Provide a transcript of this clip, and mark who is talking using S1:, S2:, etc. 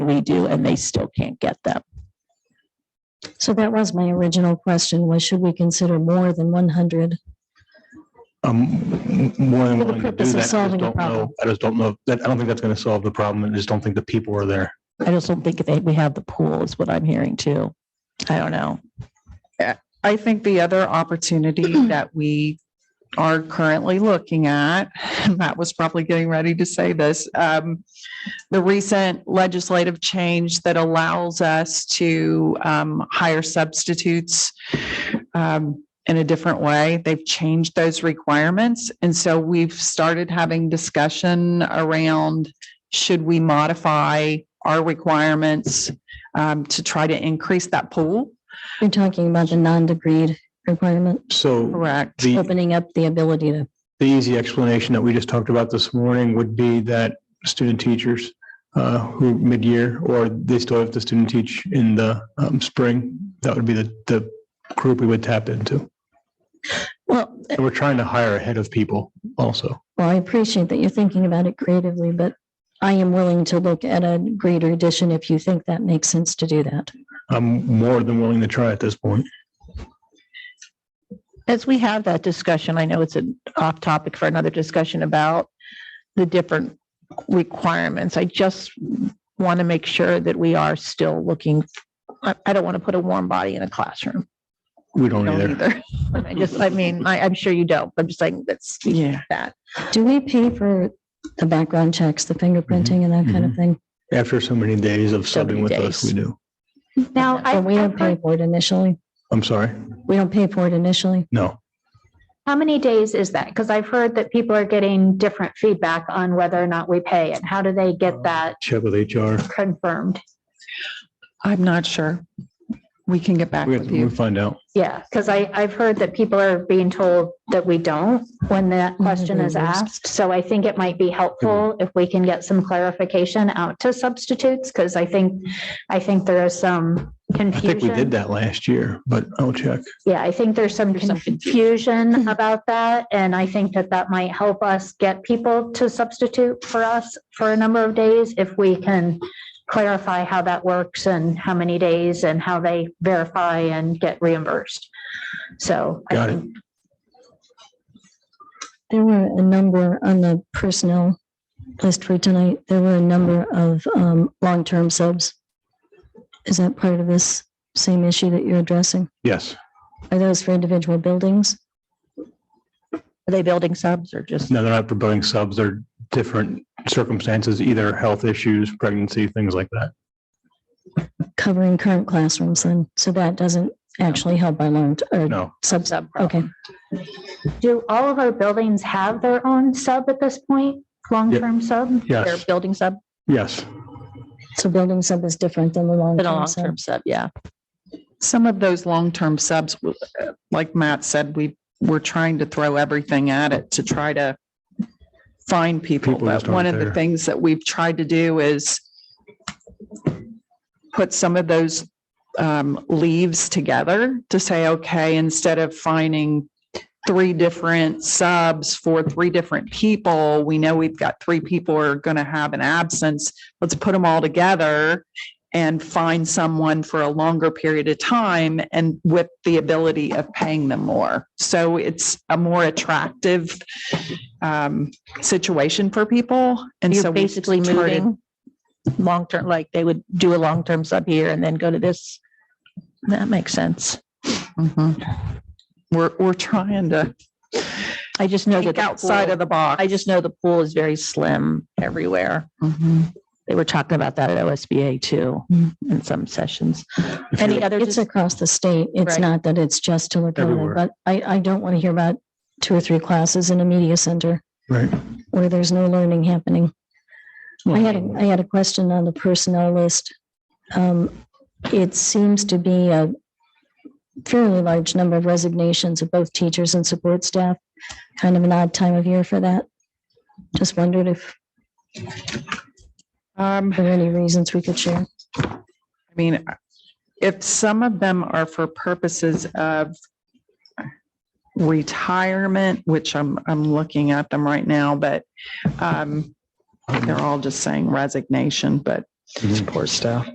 S1: redo and they still can't get them.
S2: So that was my original question, was should we consider more than one hundred?
S3: I'm more than
S2: For the
S3: willing to do
S2: purpose of
S3: that. I just
S2: solving the
S3: don't
S2: problem.
S3: know. I just don't know, that, I don't think that's gonna solve the problem, I just don't think the people are there.
S1: I just don't think they, we have the pool is what I'm hearing too. I don't know.
S4: I think the other opportunity that we are currently looking at, Matt was probably getting ready to say this, um, the recent legislative change that allows us to um, hire substitutes um, in a different way. They've changed those requirements. And so we've started having discussion around should we modify our requirements um, to try to increase that pool?
S2: You're talking about the non-degreed requirement,
S3: So
S4: Correct.
S3: the,
S2: opening up the ability to,
S3: the easy explanation that we just talked about this morning would be that student teachers uh, who mid-year, or they still have to student teach in the um, spring, that would be the, the group we would tap into.
S2: well,
S3: And we're trying to hire ahead of people also.
S2: well, I appreciate that you're thinking about it creatively, but I am willing to look at a greater addition if you think that makes sense to do that.
S3: I'm more than willing to try at this point.
S5: as we have that discussion, I know it's an off topic for another discussion about the different requirements. I just want to make sure that we are still looking. I, I don't want to put a warm body in a classroom.
S3: We don't
S5: Don't
S3: either.
S5: either. I just, I mean, I, I'm sure you don't. but I'm just saying that's
S4: Yeah.
S5: that.
S2: Do we pay for the background checks, the fingerprinting and that kind of thing?
S3: After so many days of
S5: So
S3: subbing
S5: many
S3: with us, we
S5: days.
S3: do.
S5: Now, I,
S2: But we
S5: I've
S2: don't pay
S5: heard-
S2: for it initially.
S3: I'm sorry.
S2: We don't pay for it initially.
S3: No.
S6: How many days is that? Because I've heard that people are getting different feedback on whether or not we pay and how do they
S3: Oh.
S6: get that
S3: Uh, Check with HR.
S6: confirmed?
S4: I'm not sure. We can get back
S3: We
S4: with
S3: we
S4: you.
S3: find out.
S6: Yeah, because I, I've heard that people are being told that we don't when that
S3: Mm-hmm.
S2: Mhm,
S6: question is
S2: very worst.
S6: asked. So I think it might be helpful if we can get some clarification out to substitutes, because I think, I think there is some
S3: I think we did
S6: confusion.
S3: that last year, but I'll check.
S6: Yeah, I think there's some
S5: There's some confusion.
S6: confusion about that. And I think that that might help us get people to substitute for us for a number of days if we can clarify how that works and how many days and how they verify and get reimbursed. So. I
S3: Got it.
S6: think
S2: There were a number on the personnel list for tonight. There were a number of um, long-term subs. Is that part of this same issue that you're addressing?
S3: Yes.
S2: Are those for individual buildings?
S5: Are they building subs or just?
S3: No, they're not promoting subs. They're different circumstances, either health issues, pregnancy, things like that.
S2: Covering current classrooms then? So that doesn't actually help our long, or
S3: No.
S2: subs? Okay.
S6: Do all of our buildings have their own sub at this point, long-term sub?
S5: They're
S3: Yes.
S5: building sub,
S3: Yes.
S2: So building sub is different than the
S5: but a
S2: long-term sub.
S5: long-term sub, yeah.
S4: Some of those long-term subs, w- uh, like Matt said, we, we're trying to throw everything at it to try to find people.
S3: People just
S4: But one
S3: aren't
S4: of the
S3: there.
S4: things that we've tried to do is put some of those um, leaves together to say, okay, instead of finding three different subs for three different people, we know we've got three people who are going to have an absence. Let's put them all together and find someone for a longer period of time and with the ability of paying them more. So it's a more attractive um, situation for people. And so
S5: You're
S4: we
S5: basically
S4: started-
S5: moving long-term, like they would do a long-term sub here and then go to this. That makes sense.
S4: Mhm. We're, we're trying to
S5: I just know that.
S4: think
S5: the
S4: outside
S5: pool-
S4: of the box.
S5: I just know the pool is very slim everywhere.
S4: Mhm.
S5: They were talking about that at OSBA too,
S4: Hmm.
S5: in some sessions. Any other,
S2: It's across the state. It's
S5: Right.
S2: not that it's just to Lacona,
S3: Everywhere.
S2: but I, I don't want to hear about two or three classes in a media center.
S3: Right.
S2: where there's no learning happening. I had, a- I
S3: Well,
S2: had a question on the personnel list. Um, It seems to be a fairly large number of resignations of both teachers and support staff. Kind of an odd time of year for that. Just wondered if
S4: Um,
S2: there were any reasons we could share.
S4: I mean, if some of them are for purposes of retirement, which I'm, I'm looking at them right now, but um, they're all just saying resignation, but
S3: Mm-hmm.
S4: support staff.